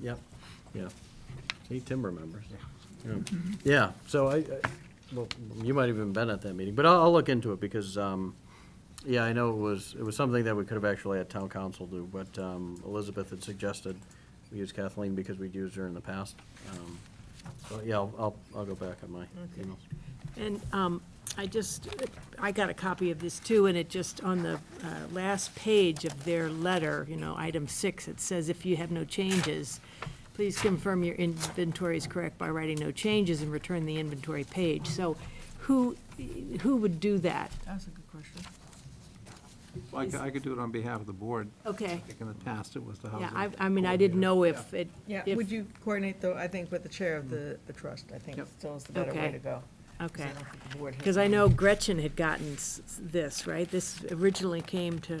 Yep, yeah. See, Tim remembers. Yeah. Yeah, so I, I- well, you might have even been at that meeting, but I'll, I'll look into it because, um, yeah, I know it was, it was something that we could have actually had town council do, but um, Elizabeth had suggested we use Kathleen because we'd used her in the past. Um, So, yeah, I'll, I'll, I'll go back on my Okay. emails. And um, I just, I got a copy of this too, and it just, on the uh, last page of their letter, you know, item six, it says, if you have no changes, please confirm your inventory is correct by writing no changes and return the inventory page. So who, who would do that? That's a good question. Well, I could, I could do it on behalf of the board. Okay, I think in the past, it was the housing. yeah, I, I mean, I didn't know if it, Yeah, if- would you coordinate though, I think with the chair of the, the trust, I think Yep. still is the better Okay. way to go. 'Cause I okay. don't think the board has Because I any- know Gretchen had gotten s- this, right? This originally came to,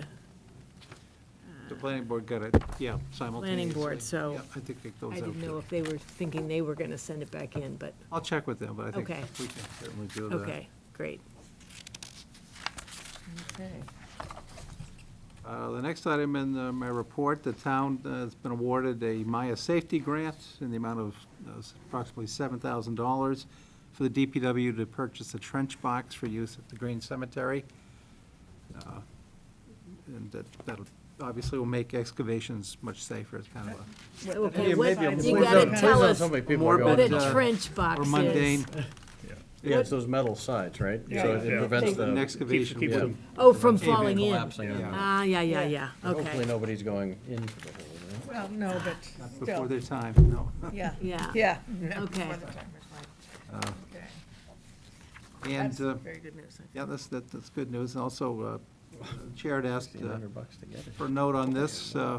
The planning board got it, yeah, Planning simultaneously. board, so Yeah, I think it goes I out didn't know to, if they were thinking they were going to send it back in, but, I'll check with them, but I think Okay. we can certainly do that. okay, great. Okay. Uh, The next item in uh, my report, the town uh, has been awarded a Maya Safety Grant in the amount of uh, approximately $7,000 for the DPW to purchase a trench box for use at the Green Cemetery. Uh, And that, that obviously will make excavations much safer, it's kind of a Okay, what, maybe I'm- you more gotta than- tell us Somebody what people are Morbid, going a But, uh, trench box or is. mundane. Yeah, it's those metal sides, right? So it Yeah. prevents An the, excavation. keeps yeah. them- Oh, from Cave in, falling in. collapsing in. Ah, yeah, yeah, yeah, Hopefully, okay. nobody's going into the hole, right? Well, no, Not but Before still, their time, no. yeah, Yeah. yeah. Okay. Before the time is right. Uh, Okay. And, That's uh, very good news. I yeah, that's, that- that's good news. And also, uh, Chair had asked Fifteen uh, hundred bucks to get it. for a note on this, uh,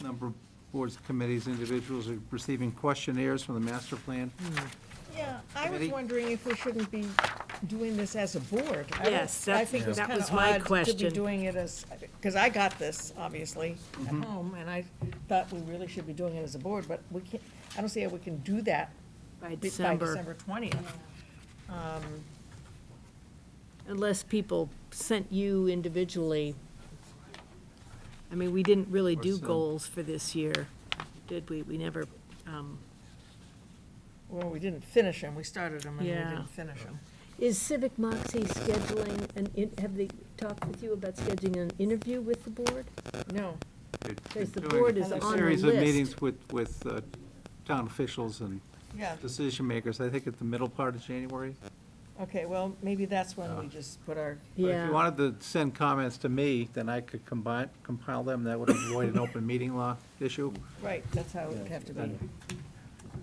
number of boards, committees, individuals are receiving questionnaires from the master plan. Hmm. Yeah, I was Committee? wondering if we shouldn't be doing this as a board. I don't- Yes, I that- think it's that kind was of my odd to be question. doing it as, because I got this, obviously, Mm-hmm. at home, and I thought we really should be doing it as a board, but we can't, I don't see how we can do that By bi- by December, December twentieth. unless people sent you individually. I mean, we didn't really Or do send- goals for this year, did we? We never, um, Well, we didn't finish them, we started them and we Yeah. didn't finish them. is Civic Moxie scheduling, an in have they talked with you about scheduling an interview with the board? No, They're- Because the they're board doing is on a the Series of list. meetings with, with uh, town officials and yeah, decision makers, I think at the middle part of January. okay, well, maybe that's when we just put our, But Yeah. If you wanted to send comments to me, then I could combine, compile them, that would avoid an open meeting law issue, right, that's how it would have to be.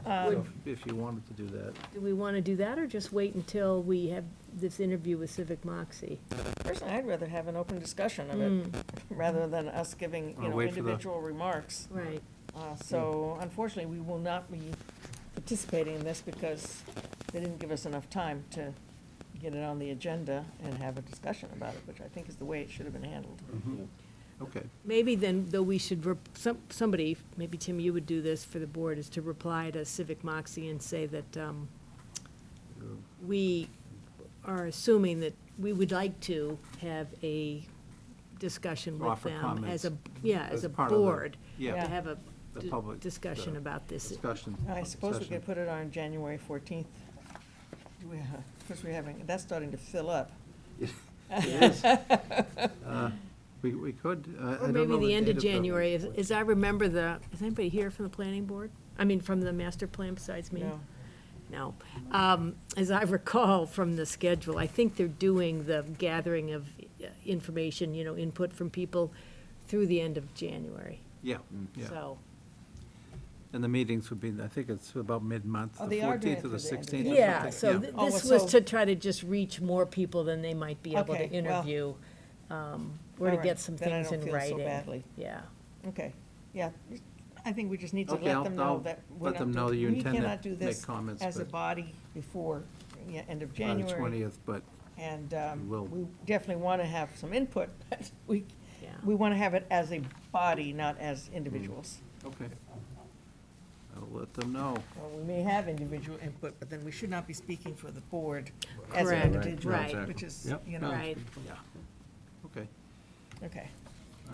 Um, So if you wanted to do that. Do we want to do that, or just wait until we have this interview with Civic Moxie? Personally, I'd rather have an open discussion of it, rather than us giving, Or you know, wait for the- individual remarks. Right. Uh, So unfortunately, we will not be participating in this because they didn't give us enough time to get it on the agenda and have a discussion about it, which I think is the way it should have been handled. Okay, Maybe then, though, we should, rep- some, somebody, maybe Tim, you would do this for the board, is to reply to Civic Moxie and say that, um, we are assuming that we would like to have a discussion with Offer them as a, comments yeah, as as a part of the- board. yeah. To have a The d- public- discussion the about this. discussion. I suppose we session. could put it on January fourteenth. Because we're having, that's starting to fill up. Uh, We, we could. uh, Or I don't maybe know the end of date January, as, as I remember the, is anybody here from the planning board? I mean, from the master plan besides me? No. No. Um, As I recall from the schedule, I think they're doing the gathering of uh, information, you know, input from people through the end of January. Yeah, yeah. So, And the meetings would be, I think it's about mid-month, Oh, the they are 14th doing or it for the the end of 16th. or January. yeah, something, so th- Oh, this well, was so- to try to just reach more people than they might be able Okay, to well, interview, um, or to all right, get some then I things don't in feel so writing. badly. Yeah. Okay, yeah, I think we just need to Okay, let I'll- them I'll know that we're let not. them know that you we intend to cannot do make this comments, As a but- body before, yeah, end of On the January. 20th, but And um, will. we definitely want to have some input, but we, Yeah. we want to have it as a body, not as Hmm. individuals. Okay. I'll let them know. Well, we may have individual input, but then we should not be speaking for the board as an Correct, individual, right. which is, Yep. you know, Right. Yeah. Okay. okay.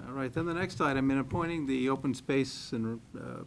All right, then the next item, in appointing the Open Space and uh,